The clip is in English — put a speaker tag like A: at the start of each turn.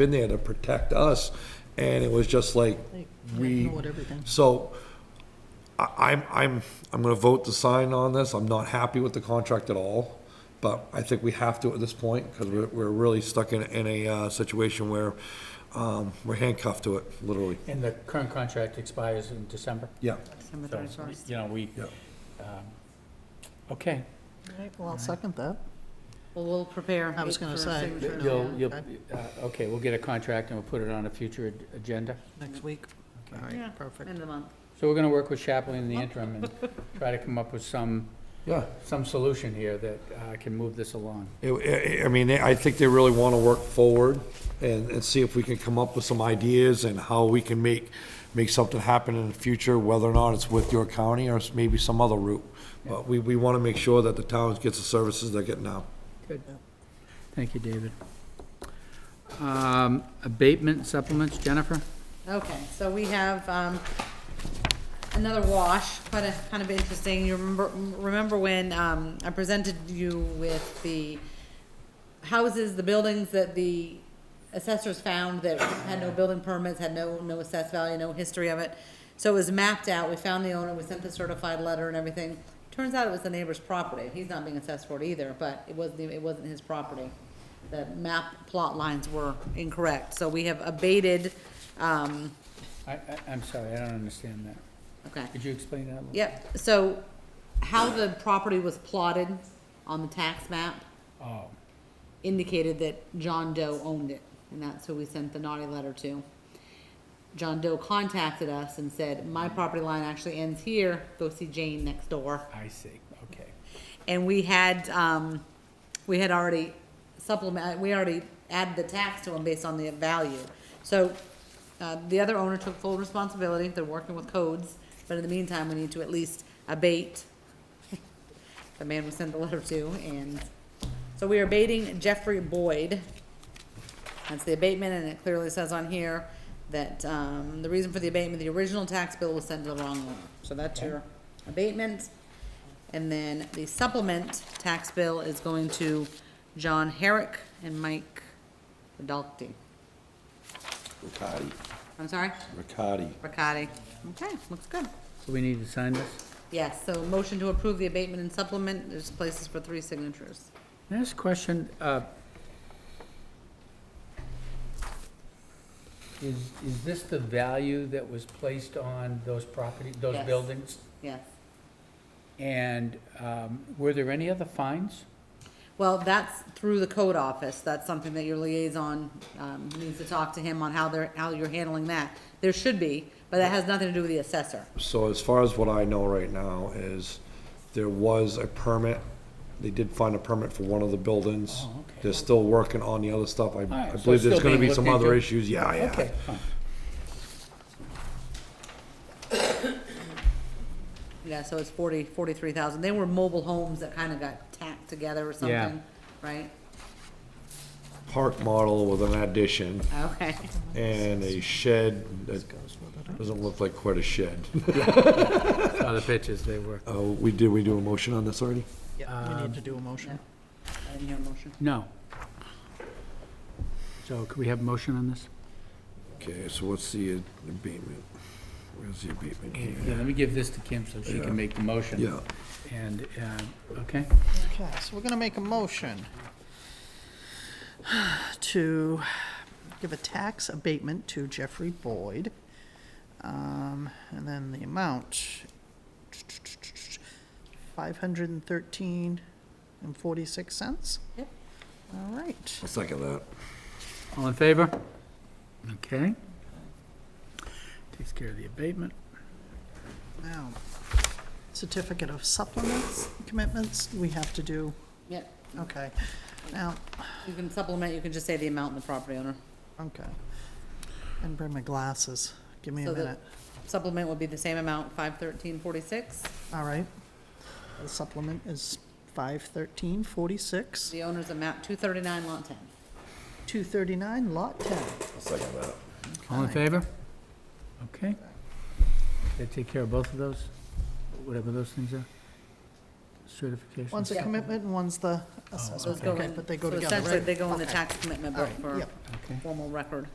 A: in there to protect us, and it was just like, we,
B: know what everything-
A: so, I, I'm, I'm, I'm gonna vote to sign on this, I'm not happy with the contract at all, but I think we have to at this point, because we're, we're really stuck in, in a, uh, situation where, um, we're handcuffed to it, literally.
C: And the current contract expires in December?
A: Yeah,
B: December
C: So,
B: 31st.
C: You know, we,
A: Yeah.
C: um, okay.
B: All right, well, I'll second that.
D: Well, we'll prepare.
B: I was
D: it
B: gonna
D: for
B: say,
D: signature.
B: No,
C: You'll, you'll,
B: I-
C: uh, okay, we'll get a contract and we'll put it on a future ag- agenda.
B: Next week. All
D: Yeah.
B: right, perfect.
D: End of the month.
C: So we're gonna work with Chaplin in the interim and try to come up with some,
A: yeah.
C: some solution here that uh, can move this along.
A: It- I I mean, I think they really want to work forward and, and see if we can come up with some ideas and how we can make, make something happen in the future, whether or not it's with your county or it's maybe some other route. But we, we want to make sure that the town gets the services they're getting now.
C: Good. Thank you, David. Um, Abatement supplements, Jennifer?
D: Okay, so we have, um, another wash, quite a, kind of interesting. You remember, remember when, um, I presented you with the houses, the buildings that the assessors found that had no building permits, had no, no assessed value, no history of it. So it was mapped out, we found the owner, we sent the certified letter and everything. Turns out it was the neighbor's property, he's not being assessed for it either, but it wasn't, it wasn't his property. The map plot lines were incorrect, so we have abated, um,
C: I, I, I'm sorry, I don't understand that.
D: okay.
C: Could you explain that a little?
D: Yep, so how the property was plotted on the tax map
C: Oh,
D: indicated that John Doe owned it, and that's who we sent the naughty letter to. John Doe contacted us and said, my property line actually ends here, go see Jane next door.
C: I see, okay.
D: And we had, um, we had already supplement, uh, we already added the tax to them based on the value. So, uh, the other owner took full responsibility, they're working with codes, but in the meantime, we need to at least abate the man we sent the letter to, and, so we are abating Jeffrey Boyd. That's the abatement, and it clearly says on here that, um, the reason for the abatement, the original tax bill was sent to the wrong owner. So that's your abatement. And then the supplement tax bill is going to John Herrick and Mike Dalty.
E: Riccardi,
D: I'm sorry,
E: Riccardi.
D: Riccati. Okay, looks good.
C: So we need to sign this?
D: Yes, so motion to approve the abatement and supplement, there's places for three signatures.
C: Can I ask a question? Uh, Is, is this the value that was placed on those property, those
D: Yes.
C: buildings?
D: Yes.
C: And um, were there any other fines?
D: Well, that's through the code office. That's something that your liaison, um, needs to talk to him on how they're, how you're handling that. There should be, but that has nothing to do with the assessor.
A: So as far as what I know right now is there was a permit, they did find a permit for one of the buildings.
C: Oh, okay.
A: They're still working on the other stuff. I, I
C: right,
A: believe
C: so it's
A: there's
C: still
A: gonna
C: being
A: be some
C: looked
A: other
C: into?
A: issues, yeah, yeah.
C: Okay, fine.
D: Yeah, so it's forty, forty-three thousand. They were mobile homes that kind of got tacked together or
C: Yeah.
D: something, right?
A: Park model with an addition.
D: Okay.
A: and a shed that doesn't look like quite a shed.
C: Saw the pictures, they were.
A: Uh, we did, we do a motion on this already?
B: Yeah, we need to do a motion.
D: I didn't hear a motion.
C: No. So could we have a motion on this?
A: Okay, so what's the abatement? Where's the abatement here?
C: Yeah, let me give this to Kim so she
A: Yeah.
C: can make the motion.
A: Yeah,
C: And, uh, okay,
B: Okay, so we're gonna make a motion to give a tax abatement to Jeffrey Boyd. Um, and then the amount, five hundred and thirteen and forty-six cents?
D: Yep.
B: All right,
A: I'll second that.
C: all in favor? Okay. Takes care of the abatement.
B: now, certificate of supplements, commitments, we have to do,
D: Yep.
B: okay. Now,
D: You can supplement, you can just say the amount and the property owner.
B: okay. And bring my glasses, give me a
D: So the-
B: minute.
D: Supplement would be the same amount, five thirteen forty-six.
B: All right. The supplement is five thirteen forty-six,
D: The owner's a map two thirty-nine lot ten.
B: two thirty-nine, lot ten.
A: I'll second that.
C: All in favor? Okay. Did I take care of both of those, whatever those things are? certification.
B: One's a commitment and one's the assessment.
D: Those go
B: Okay,
D: in-
B: But they go
D: so
B: together,
D: Essentially,
B: right?
D: they go in the
B: Okay.
D: tax commitment
B: All
D: book
B: right,
D: for
B: yep.
C: Okay.
D: formal record.